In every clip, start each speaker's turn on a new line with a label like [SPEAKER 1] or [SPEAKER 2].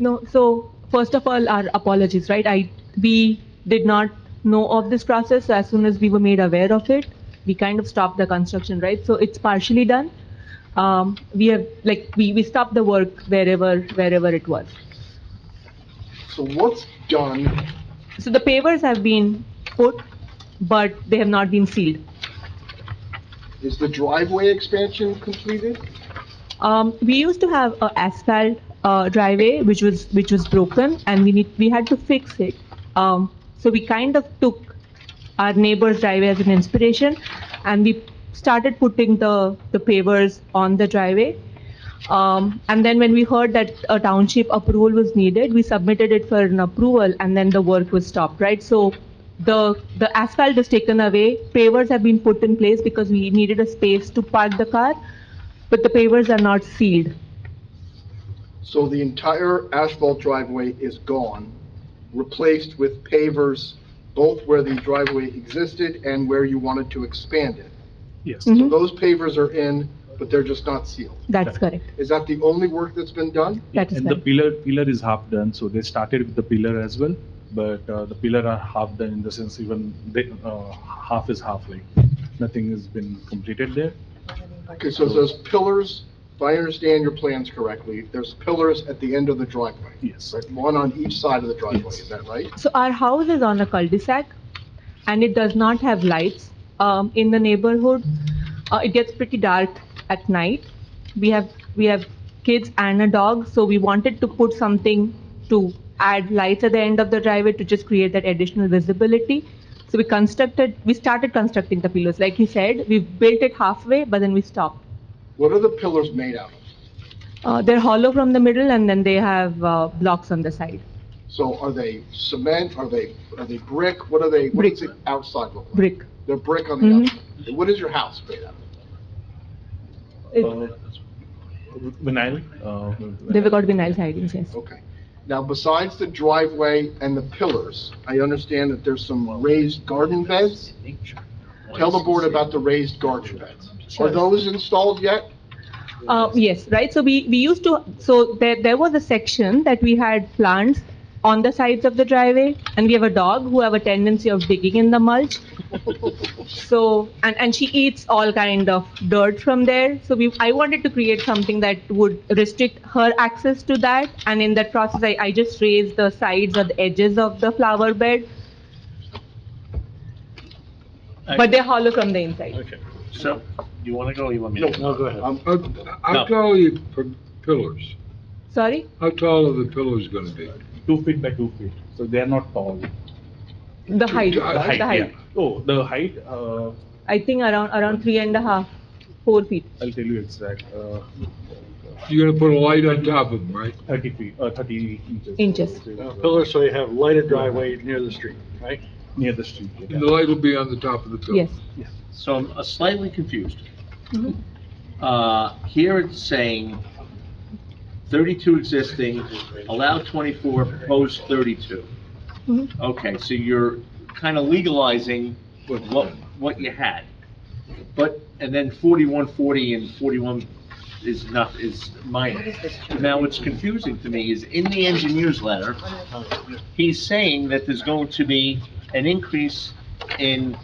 [SPEAKER 1] No, so first of all, our apologies, right? I, we did not know of this process. So As soon as we were made aware of it, we kind of stopped the construction, right? So it's partially done. Um, we have, like, we, we stopped the work wherever, wherever it was.
[SPEAKER 2] So what's done,
[SPEAKER 1] So the pavers have been put, but they have not been sealed.
[SPEAKER 2] is the driveway expansion completed?
[SPEAKER 1] Um, we used to have a asphalt uh, driveway which was which was broken, and we need we had to fix it. Um, so we kind of took our neighbor's driveway as an inspiration, and we started putting the the pavers on the driveway. Um, and then when we heard that a township approval was needed, we submitted it for an approval, and then the work was stopped. Right, so. The, the asphalt is taken away, pavers have been put in place because we needed a space to park the car, but the pavers are not sealed.
[SPEAKER 2] So the entire asphalt driveway is gone, replaced with pavers, both where the driveway existed and where you wanted to expand it.
[SPEAKER 3] Yes,
[SPEAKER 1] Mhm.
[SPEAKER 2] So those pavers are in, but they're just not sealed.
[SPEAKER 1] That's correct.
[SPEAKER 2] Is that the only work that's been done?
[SPEAKER 1] That is
[SPEAKER 3] and the
[SPEAKER 1] correct.
[SPEAKER 3] pillar, pillar is half done, so they started with the pillar as well, but uh, the pillar are half done in the sense even they, uh, half is half, like, nothing has been completed there.
[SPEAKER 2] Okay, so those pillars, if I understand your plans correctly, there's pillars at the end of the driveway.
[SPEAKER 3] Yes.
[SPEAKER 2] Right, one on each side of the driveway, is that right?
[SPEAKER 1] So our house is on a cul-de-sac and it does not have lights um, in the neighborhood. Uh, It gets pretty dark at night. We have, we have kids and a dog, so we wanted to put something to add lights at the end of the driveway to just create that additional visibility. So we constructed, we started constructing the pillars. Like you said, we built it halfway, but then we stopped.
[SPEAKER 2] What are the pillars made out of?
[SPEAKER 1] Uh, They're hollow from the middle and then they have uh, blocks on the side.
[SPEAKER 2] So are they cement, are they, are they brick, what are they, what
[SPEAKER 1] Brick.
[SPEAKER 2] does the outside look like?
[SPEAKER 1] Brick.
[SPEAKER 2] They're brick on the
[SPEAKER 1] Mhm.
[SPEAKER 2] outside. And What is your house made out of?
[SPEAKER 1] It-
[SPEAKER 3] Uh, Vinyl? uh,
[SPEAKER 1] They've got vinyl sidings, yes.
[SPEAKER 2] Okay. Now, besides the driveway and the pillars, I understand that there's some raised garden beds? Tell the board about the raised garden beds. Are those installed yet?
[SPEAKER 1] Uh, yes, right, so we, we used to, so there, there was a section that we had plants on the sides of the driveway, and we have a dog who have a tendency of digging in the mulch. So, and, and she eats all kind of dirt from there, so we, I wanted to create something that would restrict her access to that, and in that process, I, I just raised the sides or the edges of the flower bed, but they're hollow from the inside.
[SPEAKER 4] Okay, so, you wanna go, or you want me
[SPEAKER 2] No,
[SPEAKER 4] to? go?
[SPEAKER 5] go ahead.
[SPEAKER 6] Um, How how
[SPEAKER 4] No.
[SPEAKER 6] tall are your p- pillars?
[SPEAKER 1] Sorry?
[SPEAKER 6] How tall are the pillars gonna be?
[SPEAKER 3] Two feet by two feet, so they are not tall.
[SPEAKER 1] The height,
[SPEAKER 6] The
[SPEAKER 1] the height.
[SPEAKER 3] yeah. Oh, the height, uh,
[SPEAKER 1] I think around, around three and a half, four feet.
[SPEAKER 3] I'll tell you exact, uh,
[SPEAKER 6] You're gonna put a light on top of them, right?
[SPEAKER 3] thirty feet, uh, thirty inches.
[SPEAKER 1] Inches.
[SPEAKER 5] Pillar, so you have lighted driveway near the street, right?
[SPEAKER 3] Near the street. yeah.
[SPEAKER 6] And the light will be on the top of the pillar.
[SPEAKER 1] Yes.
[SPEAKER 4] So I'm uh, slightly confused.
[SPEAKER 1] Mhm.
[SPEAKER 4] Uh, here it's saying thirty-two existing, allow twenty-four, propose thirty-two.
[SPEAKER 1] Mhm.
[SPEAKER 4] Okay, so you're kinda legalizing
[SPEAKER 6] What's
[SPEAKER 4] what,
[SPEAKER 6] that?
[SPEAKER 4] what you had. But, and then forty-one forty and forty-one is not, is minor. Now, what's confusing to me is in the engineer's letter, he's saying that there's going to be an increase in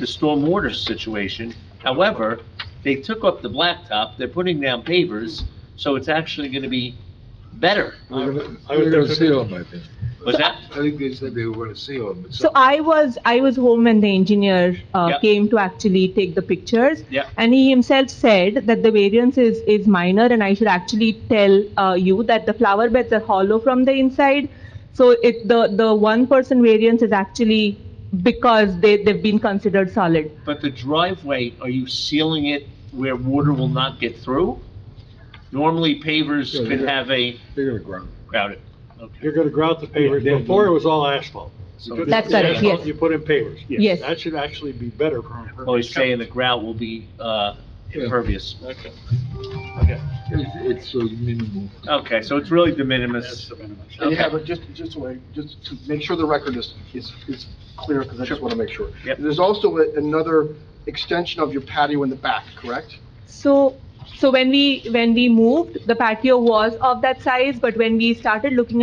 [SPEAKER 4] the stormwater situation. However, they took up the blacktop, they're putting down pavers, so it's actually gonna be better.
[SPEAKER 6] We're gonna,
[SPEAKER 5] I would
[SPEAKER 6] we're gonna
[SPEAKER 5] think-
[SPEAKER 6] seal them, I think.
[SPEAKER 4] Was that,
[SPEAKER 6] I think they said they were gonna seal them.
[SPEAKER 1] So I was, I was home when the engineer uh,
[SPEAKER 4] Yeah.
[SPEAKER 1] came to actually take the pictures.
[SPEAKER 4] Yeah.
[SPEAKER 1] And he himself said that the variance is, is minor and I should actually tell uh, you that the flower beds are hollow from the inside. So it, the, the one person variance is actually because they, they've been considered solid.
[SPEAKER 4] but the driveway, are you sealing it where water will not get through? Normally pavers
[SPEAKER 6] Yeah,
[SPEAKER 4] could
[SPEAKER 6] yeah.
[SPEAKER 4] have a
[SPEAKER 6] They're gonna ground.
[SPEAKER 4] crowded, okay.
[SPEAKER 5] You're gonna grout the pavers.
[SPEAKER 3] Yeah, they're-
[SPEAKER 5] Before it was all asphalt.
[SPEAKER 3] So
[SPEAKER 5] You
[SPEAKER 1] That's
[SPEAKER 5] put-
[SPEAKER 1] correct, yes.
[SPEAKER 5] You put in pavers.
[SPEAKER 1] Yes.
[SPEAKER 5] That should actually be better for. for-
[SPEAKER 4] Always saying the grout will be, uh, impervious.
[SPEAKER 5] Okay.
[SPEAKER 6] It's, it's so minimal.
[SPEAKER 4] Okay, so it's really de minimis.
[SPEAKER 5] That's the minimum.
[SPEAKER 2] And you
[SPEAKER 4] Okay.
[SPEAKER 2] have, a- just, just a way, just to make sure the record is, is, is clear, because I just want to make sure.
[SPEAKER 4] Yep.
[SPEAKER 2] There's also a- another extension of your patio in the back, correct?
[SPEAKER 1] So So when we, when we moved, the patio was of that size, but when we started looking at